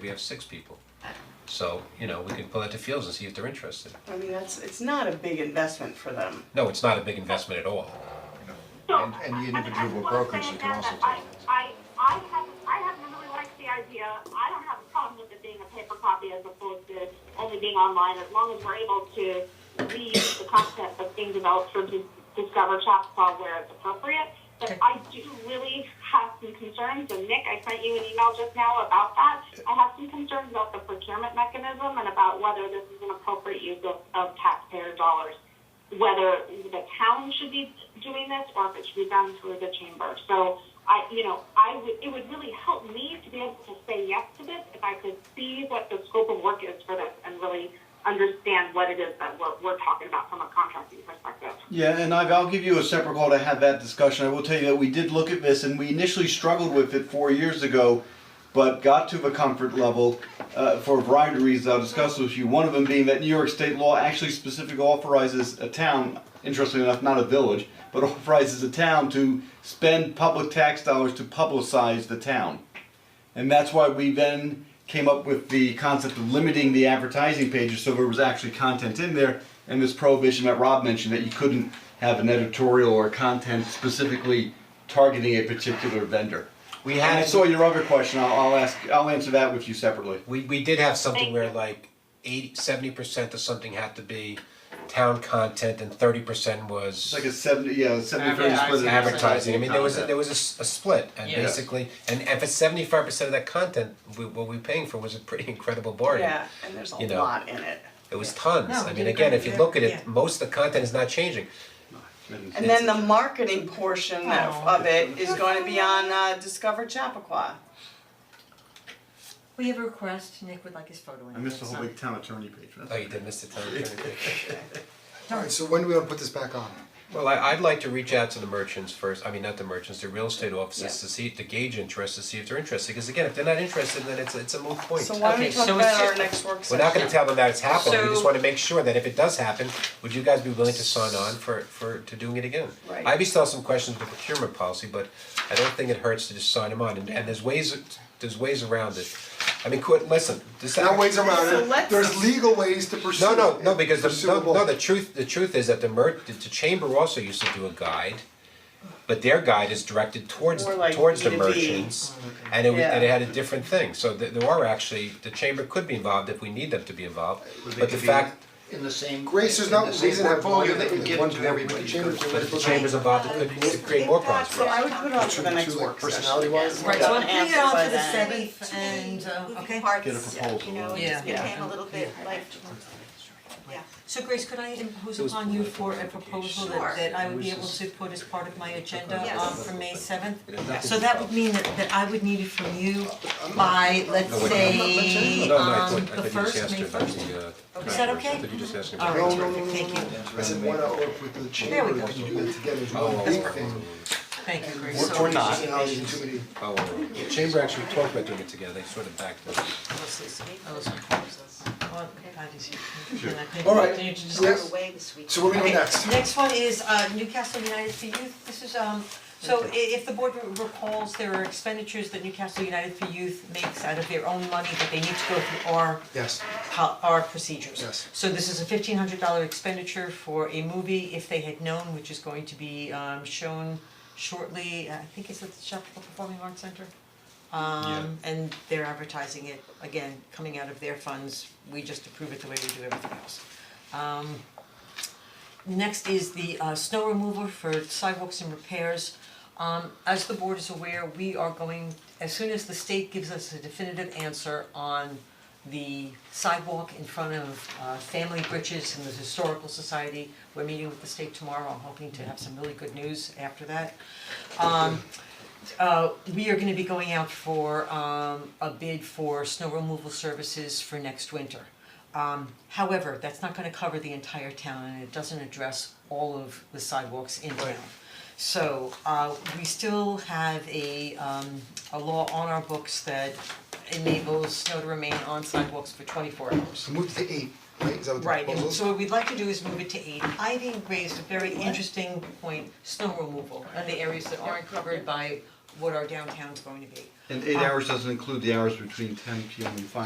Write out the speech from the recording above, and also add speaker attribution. Speaker 1: we have six people. So, you know, we can pull out to Fields and see if they're interested.
Speaker 2: I mean, that's, it's not a big investment for them.
Speaker 1: No, it's not a big investment at all.
Speaker 3: So,
Speaker 4: And, and the individual brokers that can also do
Speaker 3: I,
Speaker 4: that.
Speaker 3: I, I have, I have really liked the idea, I don't have a problem with it being a paper copy as opposed to only being online, as long as we're able to leave the concept of being developed for Dis- Discover Chapel where it's appropriate. But I do really have some concerns, and Nick, I sent you an email just now about that. I have some concerns about the procurement mechanism and about whether this is an appropriate use of, of taxpayer dollars whether the town should be doing this or if it should be done through the chamber. So I, you know, I would, it would really help me to be able to say yes to this if I could see what the scope of work is for this and really understand what it is that we're, we're talking about from a contracting perspective.
Speaker 5: Yeah, and I've, I'll give you a separate call to have that discussion. I will tell you that we did look at this, and we initially struggled with it four years ago, but got to the comfort level uh, for a variety of reasons. I'll discuss with you. One of them being that New York state law actually specifically authorizes a town, interestingly enough, not a village, but authorizes a town to spend public tax dollars to publicize the town. And that's why we then came up with the concept of limiting the advertising pages so there was actually content in there. And this prohibition that Rob mentioned that you couldn't have an editorial or content specifically targeting a particular vendor.
Speaker 1: We
Speaker 5: And I
Speaker 1: had,
Speaker 5: saw your other question. I'll, I'll ask. I'll answer that with you separately.
Speaker 1: we, we did have something
Speaker 3: Thank
Speaker 1: where
Speaker 3: you.
Speaker 1: like eighty, seventy percent of something had to be town content and thirty percent was
Speaker 5: It's like a seventy, yeah, seventy thirty split.
Speaker 6: Advertising.
Speaker 5: of
Speaker 1: advertising, I mean, there was, a-
Speaker 5: content.
Speaker 1: there was a, s- a split and
Speaker 6: Yeah.
Speaker 1: basically, and if it's seventy-five percent of that content, we, what we were paying for was a pretty incredible bargain.
Speaker 2: Yeah, and there's a
Speaker 1: You know.
Speaker 2: lot in it.
Speaker 1: It was tons,
Speaker 7: No,
Speaker 1: I
Speaker 7: we
Speaker 1: mean,
Speaker 7: did
Speaker 1: again,
Speaker 7: great
Speaker 1: if you
Speaker 7: there.
Speaker 1: look at
Speaker 7: Yeah.
Speaker 1: it, most of the content is not changing.
Speaker 2: And then the marketing portion of,
Speaker 7: Aw.
Speaker 2: of it is gonna be on uh, Discover Chappaqua.
Speaker 7: We have a request, Nick would like his photo in.
Speaker 5: I missed the whole big town attorney page. That's-
Speaker 1: Oh, you did miss the time.
Speaker 4: Alright, so when do we wanna put this back on?
Speaker 1: Well, I, I'd like to reach out to the merchants first, I mean, not the merchants, the real estate offices
Speaker 2: Yeah.
Speaker 1: to see, to gauge interest, to see if they're interested, because again, if they're not interested, then it's, a- it's a moot point.
Speaker 2: So why don't we
Speaker 6: Okay,
Speaker 2: talk
Speaker 6: so it's
Speaker 2: about our
Speaker 6: just-
Speaker 2: next work
Speaker 1: We're
Speaker 2: session?
Speaker 1: not gonna tell them that it's happened, we just
Speaker 6: So-
Speaker 1: wanna make sure that if it does happen, would you guys be willing to sign on for for to doing it again?
Speaker 2: Right.
Speaker 1: I'd be still have some questions with the procurement policy, but I don't think it hurts to just sign them on, and and there's ways, there's ways around it. I mean, quit, listen, this.
Speaker 4: Now ways
Speaker 2: So
Speaker 4: around it,
Speaker 2: let's-
Speaker 4: there's legal ways to pursue.
Speaker 1: No, no,
Speaker 4: it,
Speaker 1: no, because the, no,
Speaker 4: pursuable.
Speaker 1: no, the truth, the truth is that the mer, the the chamber also used to do a guide. But their guide is directed towards,
Speaker 2: More like
Speaker 1: towards the
Speaker 2: B to B.
Speaker 1: merchants, and it was, and it
Speaker 2: Yeah.
Speaker 1: had a different thing, so th- there are actually, the chamber could be involved if we need them to be involved.
Speaker 8: Would
Speaker 1: But
Speaker 8: they
Speaker 1: the
Speaker 8: be
Speaker 1: fact,
Speaker 8: In the same.
Speaker 4: Grace, there's
Speaker 8: in
Speaker 4: no
Speaker 8: the same
Speaker 4: reason to have
Speaker 8: portfolio
Speaker 4: one
Speaker 8: that you
Speaker 4: to-
Speaker 8: give
Speaker 4: one
Speaker 8: to
Speaker 4: to
Speaker 8: everybody,
Speaker 4: the chamber,
Speaker 8: because
Speaker 4: but
Speaker 8: that's
Speaker 1: if the
Speaker 8: what-
Speaker 1: chamber's involved, it could create more problems.
Speaker 2: So I would put it on for the
Speaker 4: Two-
Speaker 2: next
Speaker 4: two, like,
Speaker 2: work session.
Speaker 4: personality wise.
Speaker 2: Right,
Speaker 7: Right,
Speaker 2: so
Speaker 7: so
Speaker 2: Don't I'm
Speaker 7: I'm
Speaker 2: putting it answer
Speaker 7: putting it
Speaker 2: on
Speaker 7: on
Speaker 2: by
Speaker 7: for
Speaker 2: for the
Speaker 7: the
Speaker 2: then.
Speaker 7: seventh and, okay. okay.
Speaker 5: Get a proposal.
Speaker 9: uh, You know, it
Speaker 6: Yeah.
Speaker 9: just became a little bit like, yeah.
Speaker 7: So Grace, could I impose
Speaker 1: Those
Speaker 7: upon you
Speaker 1: political
Speaker 7: for a proposal
Speaker 9: Sure.
Speaker 7: that that I would be able to put as part of my agenda
Speaker 9: Yes.
Speaker 7: um for May seventh?
Speaker 1: Yes.
Speaker 7: So that would mean that that I would need it from you by, let's
Speaker 1: No, wait.
Speaker 7: say,
Speaker 1: no, no, I
Speaker 7: um
Speaker 1: thought, I thought you
Speaker 7: the
Speaker 1: just
Speaker 7: first,
Speaker 1: asked
Speaker 7: May
Speaker 1: her about
Speaker 7: first.
Speaker 1: the, uh,
Speaker 7: Is that
Speaker 1: controversy. I
Speaker 7: okay?
Speaker 1: thought you just asked her about
Speaker 7: All
Speaker 1: the
Speaker 7: right,
Speaker 4: No, no, no,
Speaker 7: terrific, thank you,
Speaker 4: I said, why not work with the
Speaker 7: we
Speaker 4: chamber,
Speaker 7: go.
Speaker 4: we can do that together as
Speaker 1: Oh,
Speaker 4: one
Speaker 1: oh,
Speaker 4: big
Speaker 1: oh,
Speaker 4: thing.
Speaker 7: thank you, Grace.
Speaker 5: Or- Or not.
Speaker 4: Personalities and too many-
Speaker 1: oh, oh, oh. The chamber actually talked about doing it together, they sort of backed it.
Speaker 7: Oh, Well, Patty's here. Can I take-
Speaker 4: All right.
Speaker 7: Need to
Speaker 4: Yeah.
Speaker 7: discuss?
Speaker 9: We're away this week.
Speaker 4: So what are we doing next?
Speaker 7: Okay, next one is uh Newcastle United for Youth, this is um, so i- if the board recalls, there are expenditures that Newcastle United for Youth makes out of their own money, but they need to go through our
Speaker 4: Yes.
Speaker 7: po- our procedures.
Speaker 4: Yes.
Speaker 7: So this is a fifteen hundred dollar expenditure for a movie, If They Had Known, which is going to be um shown shortly, I think it's at the Chapel Performing Arts Center. Um and they're advertising it, again, coming out of their funds, we just approve it the way we do everything else. Um Next is the uh snow removal for sidewalks and repairs. Um as the board is aware, we are going, as soon as the state gives us a definitive answer on the sidewalk in front of uh Family Bridges and the Historical Society, we're meeting with the state tomorrow, I'm hoping to have some really good news after that. Um uh we are gonna be going out for um a bid for snow removal services for next winter. Um however, that's not gonna cover the entire town and it doesn't address all of the sidewalks in town. So uh we still have a um a law on our books that enables snow to remain on sidewalks for twenty four hours.
Speaker 4: So move to eight, right, is that what the
Speaker 7: Right,
Speaker 4: proposal
Speaker 7: and
Speaker 4: is?
Speaker 7: so what we'd like to do is move it to eight. Ivy raised a very interesting point, snow removal, and the areas that aren't covered by what our downtown's going to be.
Speaker 5: And eight hours doesn't include the hours between ten PM and five